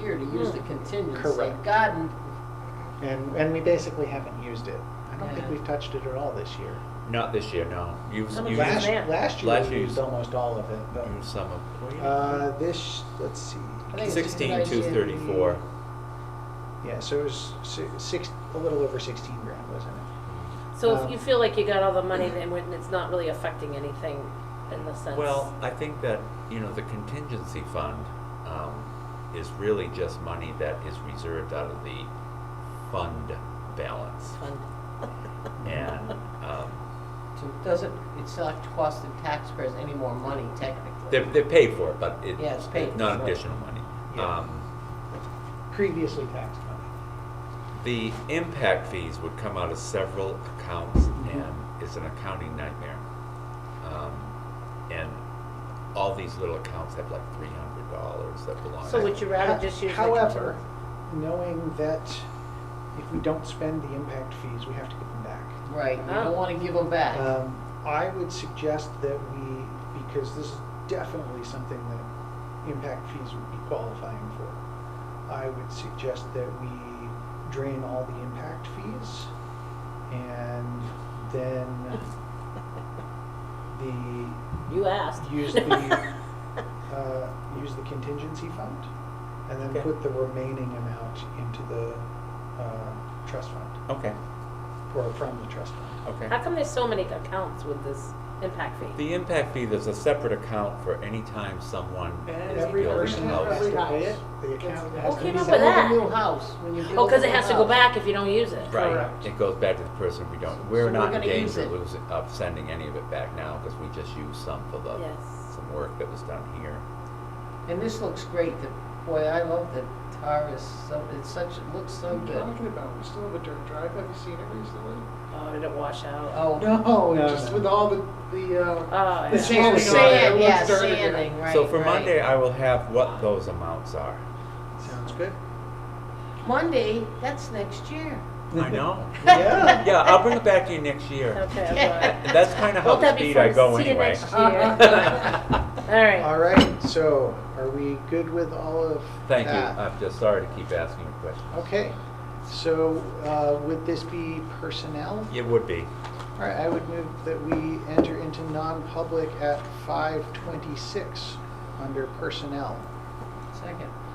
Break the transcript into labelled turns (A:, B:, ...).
A: here to use the contingency.
B: Hmm. Correct.
A: God,
B: And, and we basically haven't used it. I don't think
A: Yeah.
B: we've touched it at all this year.
C: Not this year, no. You've,
D: Some of
C: you've,
D: us
B: Last,
D: may.
B: last year
C: Last Mm,
B: we
C: year
B: used
C: you-
B: almost all of it,
C: you've
B: but,
C: some of.
B: uh, this, let's see.
A: I think it's just
C: Sixteen,
A: last
C: two
A: year.
C: thirty-four.
B: Yeah, so it was si- six, a little over sixteen grand, wasn't it?
D: So
C: Uh,
B: Um,
D: if you feel like you got all the money, then when it's not really affecting anything in the sense.
C: Well, I think that, you know, the contingency fund, um, is really just money that is reserved out of the fund balance.
D: Fund.
C: And, um,
A: to- doesn't, it's not costing taxpayers any more money technically.
C: they're, they're paid for it, but it-
A: Yeah, it's paid,
C: Not
A: right.
C: additional money.
B: Yeah.
C: Um,
B: Previously taxed money.
C: the impact fees would come out of several accounts and it's an accounting nightmare. Um, and all these little accounts have like three hundred dollars that belong.
D: So would you rather just use? the
B: However, knowing that if we don't spend the impact fees, we have to give them back.
A: Right, you don't wanna give them back.
B: Oh. Um, I would suggest that we, because this is definitely something that impact fees would be qualifying for, I would suggest that we drain all the impact fees and then the,
D: contingent- You asked.
B: use the- uh, use the contingency fund and then
C: Okay.
B: put the remaining amount into the, uh, trust fund,
C: Okay,
B: or from the trust fund.
C: okay.
D: How come there's so many accounts with this impact fee?
C: The impact fee, there's a separate account for any time someone is Oh,
B: Every
C: building
B: person
C: a
B: has
C: house.
B: to pay it, the account
A: It's-
B: has
D: Who
B: to
D: came
B: be
D: up with
B: set.
A: Build a
D: that?
A: new house when you build
D: Oh, because
A: a
D: it
A: new
D: has to go
A: house.
D: back if you don't use it.
C: Right,
B: Correct.
C: it goes back to the person we don't,
A: So
C: we're
A: we're
C: not in
A: gonna use
C: danger
A: it.
C: of losing, of sending any of it back now, because we just used some for the,
D: Yes.
C: some work that was done here.
A: And this looks great, the, boy, I love the tar is so, it's such, it looks
E: What are
A: so
E: you
A: good.
E: talking about? We still have a dirt drive. Have you seen it recently?
D: Oh, did it wash out?
A: Oh.
E: No,
B: No,
E: just
B: no.
E: with all the the. Uh,
D: Oh,
E: the
D: yeah.
E: sanding. on it,
A: Sand,
E: it
A: yeah,
E: looks dirty.
A: sanding, right,
C: So for
A: right.
C: Monday, I will have what those amounts are.
B: Sounds good.
A: Monday, that's next year.
C: I know.
B: Yeah.
C: Yeah, I'll bring it back to you next year.
D: Okay, I'm
C: And that's kind of how
D: Won't that be
C: speed I
D: fun?
C: go
D: See you
C: anyway.
D: next sorry. All right.
B: All right, so are we good with all of
C: Thank you, Uh,
B: that?
C: I'm just sorry to keep asking you questions.
B: Okay, so uh, would this be personnel?
C: It would be.
B: All right, I would move that we enter into non-public at 5:26 under personnel.
A: Second.